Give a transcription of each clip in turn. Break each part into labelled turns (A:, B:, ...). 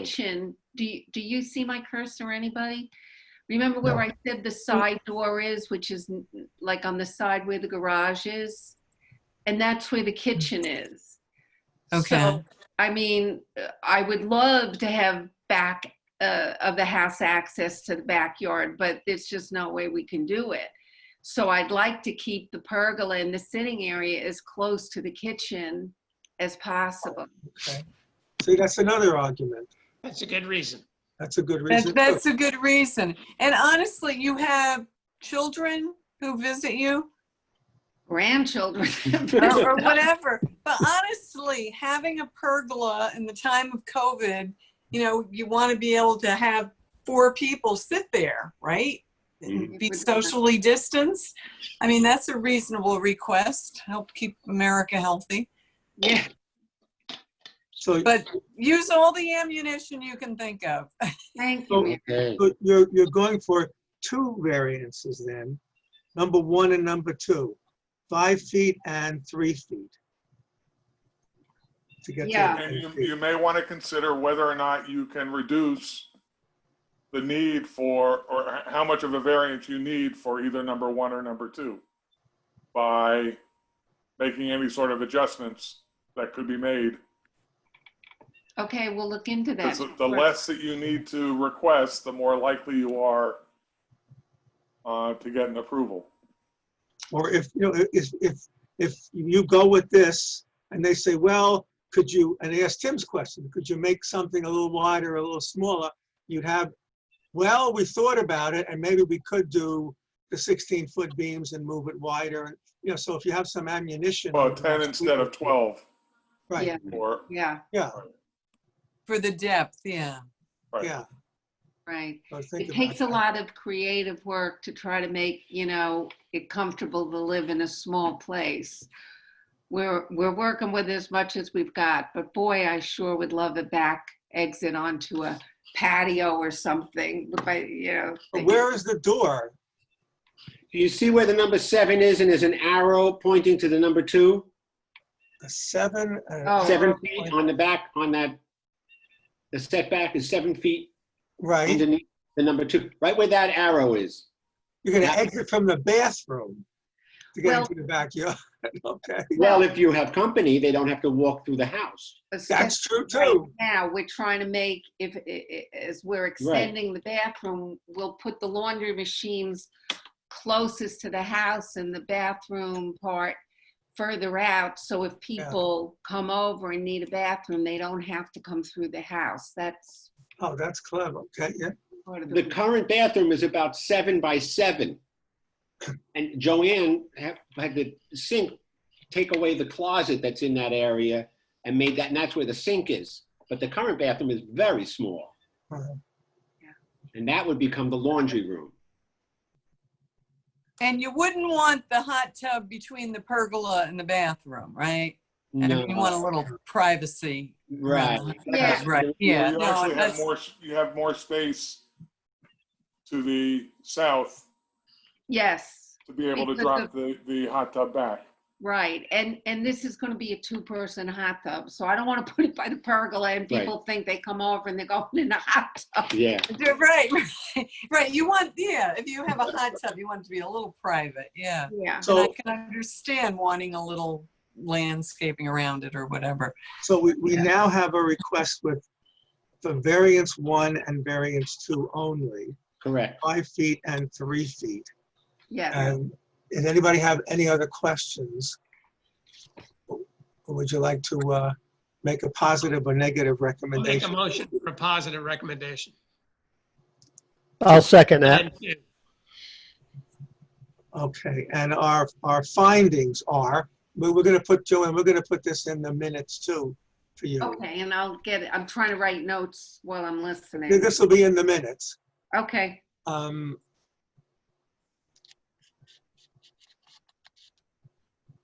A: kitchen, do you, do you see my cursor, anybody? Remember where
B: No.
A: I said the side door is, which is n- like on the side where the garage is? And that's where the kitchen is.
C: Okay.
A: So, I mean, uh, I would love to have back uh, of the house access to the backyard, but there's just no way we can do it. So I'd like to keep the pergola in the sitting area as close to the kitchen as possible.
B: See, that's another argument.
D: That's a good reason.
B: That's a good
C: That,
B: reason. too.
C: that's a good reason. And honestly, you have children who visit you
A: Grandchildren.
C: or, or whatever. But honestly, having a pergola in the time of COVID, you know, you want to be able to have four people sit there, right? And Be socially distanced. I mean, that's a reasonable request. Help keep America healthy.
A: Yeah.
B: So,
C: But use all the ammunition you can think of.
A: Thank
B: Oh.
A: you. Mary.
D: Okay.
B: but you're, you're going for two variances then, number one and number two, five feet and three feet. To get to
A: Yeah.
E: And you,
B: the
E: you may want to consider whether or not you can reduce the need for, or h- how much of a variance you need for either number one or number two by making any sort of adjustments that could be made.
A: Okay, we'll look into that.
E: Because the less that you need to request, the more likely you are uh, to get an approval.
B: Or if, you know, if, if, if you go with this and they say, well, could you, and they ask Tim's question, could you make something a little wider, a little smaller? You'd have, well, we thought about it and maybe we could do the 16-foot beams and move it wider. and You know, so if you have some ammunition.
E: Well, 10 instead of 12
B: Right,
A: Yeah,
E: or,
A: yeah,
B: yeah,
C: For the depth, yeah.
E: right.
B: yeah.
A: right.
B: So think
A: It
B: about
A: takes a
B: that.
A: lot of creative work to try to make, you know, it comfortable to live in a small place. We're, we're working with as much as we've got, but boy, I sure would love a back exit onto a patio or something, but, you know.
B: But Where is the door?
F: Do you see where the number seven is and there's an arrow pointing to the number two?
B: The seven? uh, and-
A: Oh.
F: Seven feet on the back, on that, the setback is seven feet
B: Right,
F: underneath the number two, right where that arrow is.
B: you're gonna exit from the bathroom to get
A: Well-
B: into the backyard, okay?
F: Well, if you have company, they don't have to walk through the house.
B: That's true
A: Right
B: too.
A: Now, we're trying to make, if, i- i- as we're extending the bathroom, we'll put the laundry machines closest to the house and the bathroom part further out, so if people come over and need a bathroom, they don't have to come through the house. That's
B: Oh, that's clever, okay, yeah.
A: part of
F: The
A: the,
F: current bathroom is about seven by seven. And Joanne ha- had the sink take away the closet that's in that area and made that, and that's where the sink is. But the current bathroom is very small.
B: Uh-huh.
A: Yeah.
F: And that would become the laundry room.
C: And you wouldn't want the hot tub between the pergola and the bathroom, right? And
F: No.
C: you want a little privacy.
F: Right.
A: Yeah.
C: Right,
F: You know,
C: yeah.
E: You
C: no,
E: actually have
C: that's-
E: more, s- you have more space to the south
A: yes,
E: to be able to
A: Because
E: drop the, the hot tub back.
A: right, and, and this is gonna be a two-person hot tub, so I don't wanna put it by the pergola and
F: Right.
A: people think they come over and they're going in the hot tub.
F: Yeah,
C: Yeah, Right, right. You want, yeah, if you have a hot tub, you want it to be a little private, yeah.
A: Yeah,
C: And I
B: So,
C: can understand wanting a little landscaping around it or whatever.
B: so we, we
C: Yeah.
B: now have a request with, for variance one and variance two only,
F: correct.
B: five feet and three feet.
A: yes.
B: And does anybody have any other questions? Or Would you like to, uh, make a positive or negative
D: We'll make a
B: recommendation?
D: motion for a positive recommendation.
G: I'll second that.
D: And two.
B: Okay, and our, our findings are, we- we're gonna put, Joanne, we're gonna put this in the minutes too for you.
A: Okay, and I'll get it. I'm trying to write notes while I'm listening.
B: This will be in the minutes.
A: Okay,
B: Um,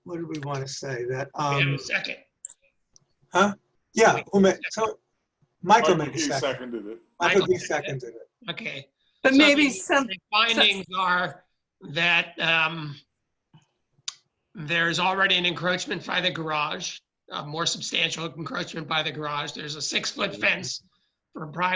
B: What do we want to say? That,
D: We have
B: um,
D: a second.
B: yeah, who made, so, Michael made a
E: He
B: second.
E: seconded it.
B: Michael
D: Michael
B: B.
D: seconded
B: seconded it.
D: Okay.
C: But
D: So
C: maybe
D: the-
C: some,
D: The findings are that um, there's already an encroachment by the garage, a more substantial encroachment by the garage. There's a six-foot fence for private